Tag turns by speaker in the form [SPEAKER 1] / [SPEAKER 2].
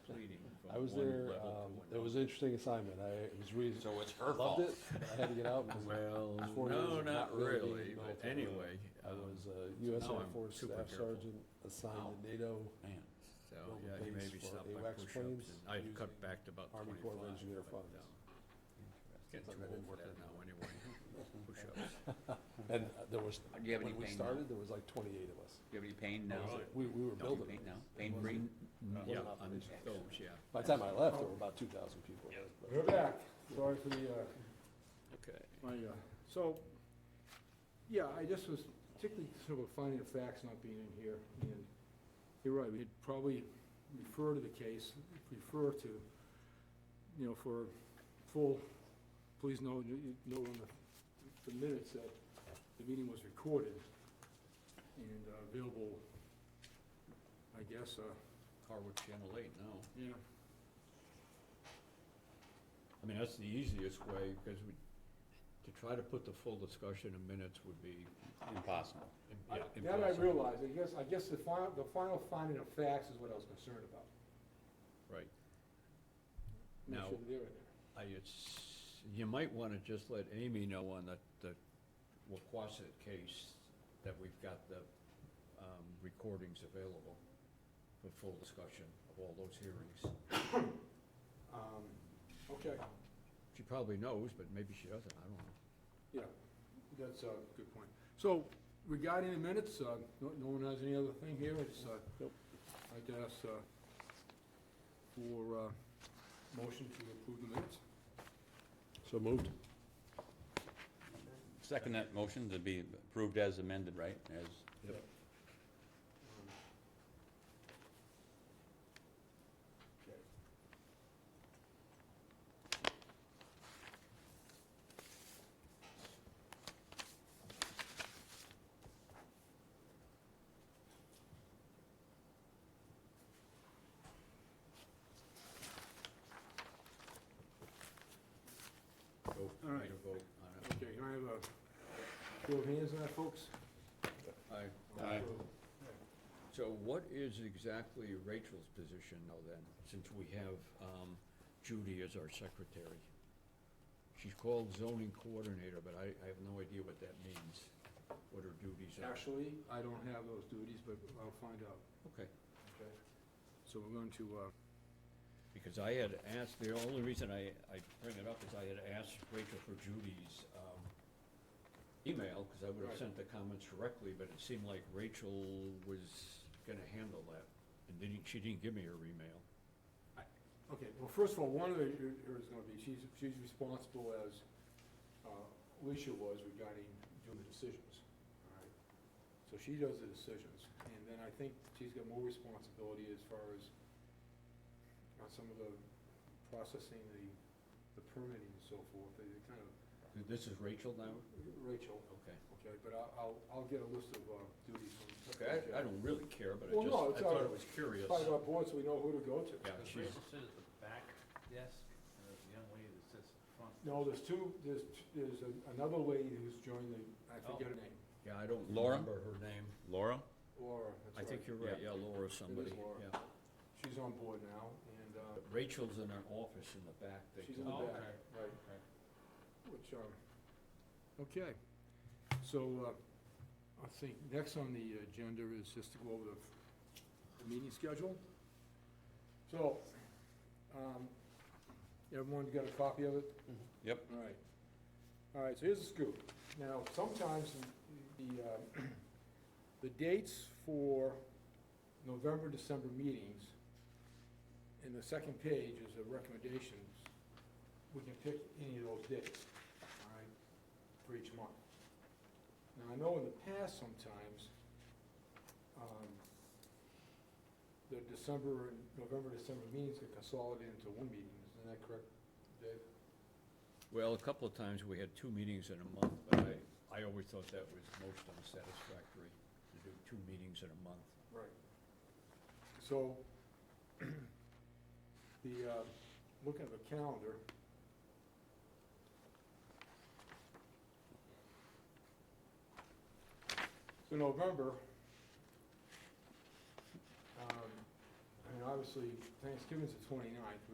[SPEAKER 1] was
[SPEAKER 2] one
[SPEAKER 1] there,
[SPEAKER 2] level to
[SPEAKER 1] um, it
[SPEAKER 2] another.
[SPEAKER 1] was an interesting assignment, I, it was really,
[SPEAKER 2] So it's her fault.
[SPEAKER 1] loved it, but I had to get out because
[SPEAKER 3] Well,
[SPEAKER 1] It's four years
[SPEAKER 3] no,
[SPEAKER 1] of
[SPEAKER 3] not
[SPEAKER 1] not really being
[SPEAKER 3] really, but
[SPEAKER 1] involved in the-
[SPEAKER 3] anyway,
[SPEAKER 1] I
[SPEAKER 3] um,
[SPEAKER 1] was a U.S.
[SPEAKER 3] now
[SPEAKER 1] Air
[SPEAKER 3] I'm
[SPEAKER 1] Force
[SPEAKER 3] super
[SPEAKER 1] Staff
[SPEAKER 3] careful.
[SPEAKER 1] Sergeant
[SPEAKER 3] Ow.
[SPEAKER 1] assigned to NATO
[SPEAKER 2] Man,
[SPEAKER 3] so,
[SPEAKER 1] build
[SPEAKER 3] yeah, he
[SPEAKER 1] things
[SPEAKER 3] maybe
[SPEAKER 1] for
[SPEAKER 3] stopped by push-ups,
[SPEAKER 1] AWACS
[SPEAKER 3] and
[SPEAKER 1] planes
[SPEAKER 3] I've cut
[SPEAKER 1] using
[SPEAKER 3] back to about
[SPEAKER 1] Army
[SPEAKER 3] twenty-five.
[SPEAKER 1] Corps of Engineer
[SPEAKER 3] but,
[SPEAKER 1] funds.
[SPEAKER 3] um,
[SPEAKER 1] It's
[SPEAKER 3] Getting too
[SPEAKER 1] like I
[SPEAKER 3] old
[SPEAKER 1] didn't
[SPEAKER 3] for
[SPEAKER 1] work
[SPEAKER 3] that
[SPEAKER 1] that
[SPEAKER 3] now, anyway, push-ups.
[SPEAKER 1] And uh, there was,
[SPEAKER 4] Do you have any
[SPEAKER 1] when we
[SPEAKER 4] pain now?
[SPEAKER 1] started, there was like twenty-eight of us.
[SPEAKER 4] Do you have any pain
[SPEAKER 1] It
[SPEAKER 4] now?
[SPEAKER 1] was like- We, we were
[SPEAKER 4] No, you
[SPEAKER 1] building.
[SPEAKER 4] pain
[SPEAKER 1] it.
[SPEAKER 4] now?
[SPEAKER 1] It
[SPEAKER 4] Pain
[SPEAKER 1] wasn't-
[SPEAKER 4] free?
[SPEAKER 1] wasn't
[SPEAKER 3] Yeah,
[SPEAKER 1] operational.
[SPEAKER 3] on those, yeah,
[SPEAKER 1] By the time I left, there were about two thousand people. but-
[SPEAKER 5] We're back, sorry for the, uh,
[SPEAKER 3] okay.
[SPEAKER 5] my, uh, so, yeah, I just was particularly sort of finding the facts not being in here, and you're right, we'd probably refer to the case, refer to, you know, for full, please know, you you know on the- the minutes that the meeting was recorded and uh, available, I guess, uh,
[SPEAKER 3] Harwich Channel Eight now.
[SPEAKER 5] yeah,
[SPEAKER 3] I mean, that's the easiest way, because we, to try to put the full discussion in minutes would be.
[SPEAKER 4] Impossible.
[SPEAKER 3] im-
[SPEAKER 5] I-
[SPEAKER 3] yeah,
[SPEAKER 5] That I
[SPEAKER 3] impossible.
[SPEAKER 5] realize, I guess, I guess the final, the final finding of facts is what I was concerned about.
[SPEAKER 3] Right.
[SPEAKER 5] Make
[SPEAKER 3] Now-
[SPEAKER 5] sure they're in there.
[SPEAKER 3] I, it's, you might wanna just let Amy know on the, the Waquasit case, that we've got the, um, recordings available for full discussion of all those hearings.
[SPEAKER 5] Um, Okay,
[SPEAKER 3] She probably knows, but maybe she doesn't, I don't know.
[SPEAKER 5] yeah, that's uh, a good point. So regarding the minutes, uh, no no one has any other thing here, it's, uh,
[SPEAKER 1] Nope.
[SPEAKER 5] I guess, uh, for uh, motion to approve the minutes.
[SPEAKER 1] So moved.
[SPEAKER 4] Second that motion to be approved as amended, right? As,
[SPEAKER 5] Um, okay.
[SPEAKER 3] Go,
[SPEAKER 5] All right.
[SPEAKER 3] need a vote on it.
[SPEAKER 5] Okay, can I have a show of hands on that, folks?
[SPEAKER 3] Aye.
[SPEAKER 4] Aye.
[SPEAKER 3] So what is exactly Rachel's position now then, since we have um, Judy as our secretary? She's called zoning coordinator, but I, I have no idea what that means, what her duties are.
[SPEAKER 5] Actually, I don't have those duties, but I'll find out.
[SPEAKER 3] Okay,
[SPEAKER 5] Okay. So we're going to, uh,
[SPEAKER 3] because I had asked, the only reason I, I bring it up is I had asked Rachel for Judy's um, email, because I would have
[SPEAKER 5] Right.
[SPEAKER 3] sent the comments directly, but it seemed like Rachel was gonna handle that, and didn't, she didn't give me her email.
[SPEAKER 5] uh, Okay, well, first of all, one of the, here is gonna be, she's, she's responsible as uh, Alicia was regarding doing the decisions, all right? So she does the decisions, and then I think she's got more responsibility as far as on some of the processing, the, the permitting and so forth, they kind of,
[SPEAKER 3] This is Rachel now?
[SPEAKER 5] Rachel,
[SPEAKER 3] Okay.
[SPEAKER 5] okay, but I'll, I'll, I'll get a list of uh, duties from.
[SPEAKER 3] Okay, I, I don't really care, but
[SPEAKER 5] Well,
[SPEAKER 3] I
[SPEAKER 5] no,
[SPEAKER 3] just, I
[SPEAKER 5] it's
[SPEAKER 3] thought
[SPEAKER 5] all- oh-
[SPEAKER 3] it was curious.
[SPEAKER 5] By our board, so we know who to go to.
[SPEAKER 3] Yeah,
[SPEAKER 2] Does
[SPEAKER 3] she's,
[SPEAKER 2] Rachel sit at the back desk, and there's a young lady that sits at the front?
[SPEAKER 5] No, there's two, there's, there's another lady who's joined the, I forget her name,
[SPEAKER 3] yeah, I don't
[SPEAKER 4] Laura?
[SPEAKER 3] remember her name.
[SPEAKER 4] Laura?
[SPEAKER 3] I
[SPEAKER 5] Laura, that's right.
[SPEAKER 3] think you're right, yeah, Laura somebody,
[SPEAKER 5] Laura.
[SPEAKER 3] yeah.
[SPEAKER 5] She's on board now, and, uh,
[SPEAKER 3] But Rachel's in her office in the back. they
[SPEAKER 5] She's
[SPEAKER 3] told
[SPEAKER 5] in
[SPEAKER 3] me.
[SPEAKER 5] the
[SPEAKER 2] Oh,
[SPEAKER 5] back.
[SPEAKER 2] okay.
[SPEAKER 5] right,
[SPEAKER 2] Okay.
[SPEAKER 5] which, um, okay. So, uh, I think next on the agenda is just to go over the, the meeting schedule. So, um, everyone got a copy of it?
[SPEAKER 4] Yep.
[SPEAKER 5] All right. All right, so here's the scoop. Now, sometimes the, uh, the dates for November, December meetings, in the second page is the recommendations. We can pick any of those dates, all right, for each month. Now, I know in the past sometimes, um, the December and November, December meetings get consolidated into one meeting. Isn't that correct, Dave?
[SPEAKER 3] Well, a couple of times we had two meetings in a month, but I, I always thought that was most unsatisfactory, to do two meetings in a month.
[SPEAKER 5] Right. So, the, uh, looking at the calendar. So November, um, I mean, obviously Thanksgiving's the twenty-ninth,